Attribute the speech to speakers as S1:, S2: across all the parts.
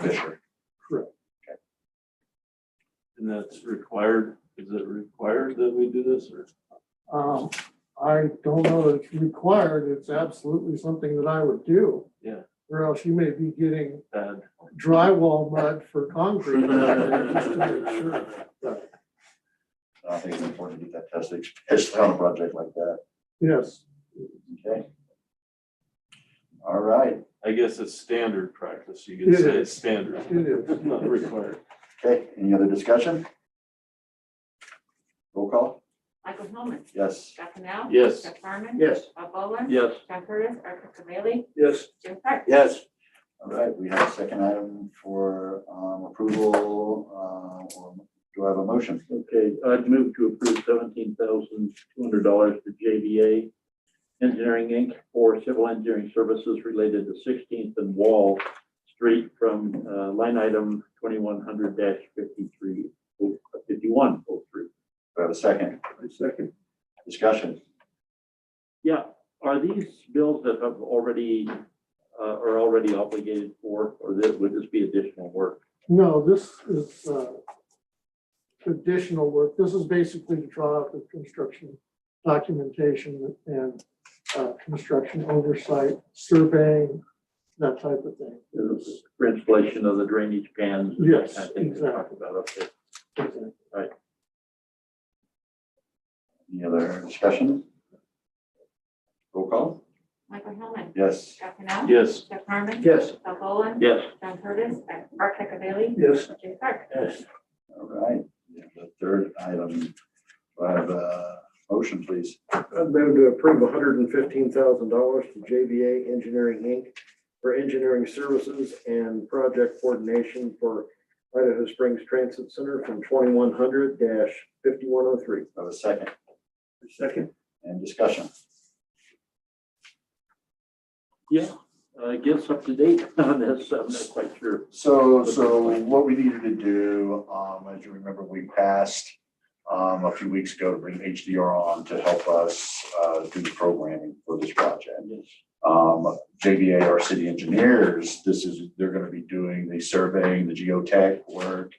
S1: Fisher.
S2: And that's required, is it required that we do this or?
S3: Um, I don't know that it's required, it's absolutely something that I would do.
S2: Yeah.
S3: Or else you may be getting
S2: bad?
S3: drywall mud for concrete. Just to make sure.
S1: I think it's important to get that tested, especially on a project like that.
S3: Yes,
S1: Okay. All right,
S2: I guess it's standard practice. You
S3: It
S2: could say
S3: is.
S2: it's standard,
S3: it is.
S2: not required.
S1: okay, any other discussion? Roll call?
S4: Michael Hillman,
S1: Yes.
S4: Scott Canal.
S2: Yes.
S4: Jeff Harmon.
S5: Yes.
S4: Bob Boland.
S5: Yes.
S4: John Curtis, Arthur Cavalli,
S5: Yes.
S4: Jim Park.
S5: Yes.
S1: All right, we have a second item for um, approval, uh, or do I have a motion?
S5: Okay, I'd move to approve seventeen thousand two hundred dollars to JVA Engineering Inc. for civil engineering services related to Sixteenth and Wall Street from uh, line item twenty-one hundred dash fifty-three, uh, fifty-one oh three.
S1: Do I have a second?
S5: Second.
S1: Discussion?
S5: Yeah, are these bills that have already, uh, are already obligated for, or that would this be additional work?
S3: No, this is, uh, additional work. This is basically to draw up the construction documentation and, uh, construction oversight, surveying, that type of thing. Yes.
S5: For installation of the drainage pans? and that
S3: Yes,
S5: kind of thing we talked About up there.
S3: Exactly.
S1: Any other discussion? Roll call?
S4: Michael Hillman,
S1: Yes.
S4: Scott Canal.
S2: Yes.
S4: Jeff Harmon.
S5: Yes.
S4: Bob Boland.
S5: Yes.
S4: John Curtis, Arthur Cavalli,
S5: Yes.
S4: Jim Park.
S1: All right, we have the third item, do I have a motion, please?
S6: I'd move to approve hundred and fifteen thousand dollars to JVA Engineering Inc. for engineering services and project coordination for Idaho Springs Transit Center from twenty-one hundred fifty-one oh three.
S1: Do I have a second
S6: Second.
S1: and discussion?
S5: Yeah, I guess uh, up to date on this, I'm not quite sure.
S1: So, so what we needed to do, um, as you remember, we passed um, a few weeks ago to bring HDR on to help us, uh, do the programming for this project. Um, JVA, our city engineers, this is, they're gonna be doing the surveying, the geotech work,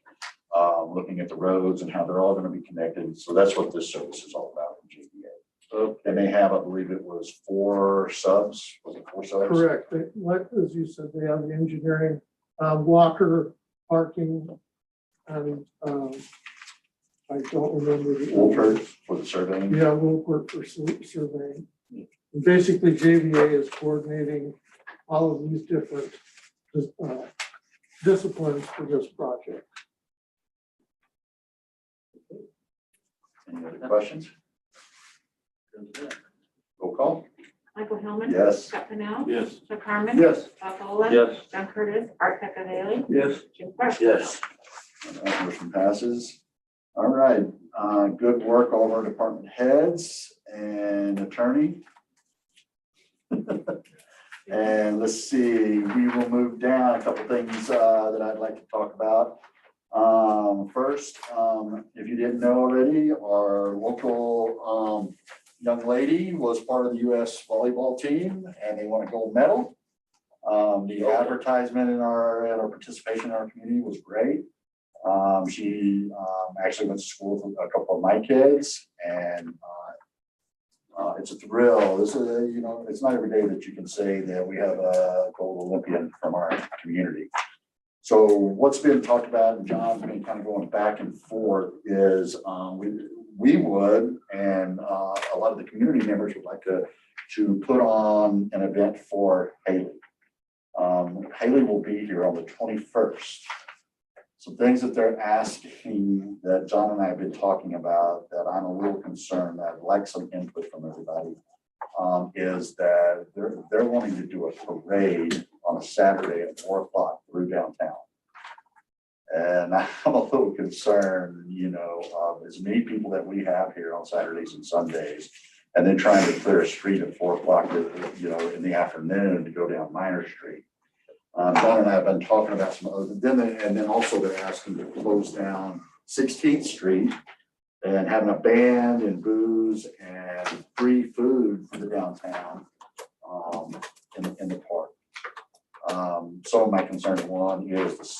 S1: um, looking at the roads and how they're all gonna be connected. So that's what this service is all about from JVA.
S5: Okay,
S1: And they have, I believe it was four subs, was it four subs?
S3: Correct. They- What, as you said, they have the engineering, um, Walker parking and, um, I don't remember. the other-
S1: Wolford for the surveying.
S3: Yeah, we'll work for sur- surveying. And Basically JVA is coordinating all of these different, uh, disciplines for this project.
S1: Any other questions? Roll call?
S4: Michael Hillman.
S1: Yes.
S4: Scott Canal.
S2: Yes.
S4: Jeff Harmon.
S6: Yes.
S4: Bob Boland.
S5: Yes.
S4: John Curtis, Arthur Cavalli,
S5: Yes.
S4: Jim Park.
S5: Yes.
S1: That motion passes. All right, uh, good work, all of our department heads and attorney. And let's see, we will move down a couple things uh, that I'd like to talk about. Um, First, um, if you didn't know already, our local um, young lady was part of the US volleyball team and they won a gold medal. Um, The advertisement in our, and our participation in our community was great. Um, she, um, actually went to school with a couple of my kids and, uh, uh, it's a thrill. This is, uh, you know, it's not every day that you can say that we have a gold Olympian from our community. So what's been talked about, and John's been kind of going back and forth, is, um, we, we would, and, uh, a lot of the community members would like to, to put on an event for Haley. Um, Haley will be here on the twenty-first some things that they're asking that John and I have been talking about that I'm a little concerned that I'd like some input from everybody. um, is that they're, they're wanting to do a parade on a Saturday at four o'clock through downtown. And I'm a little concerned, you know, of as many people that we have here on Saturdays and Sundays. And then trying to clear a street at four o'clock, you know, in the afternoon to go down Minor Street. Um, Don and I have been talking about some other, then, they- and then also they're asking to close down Sixteenth Street and having a band and booze and free food for the downtown, um, in, in the park. Um, so my concern one is the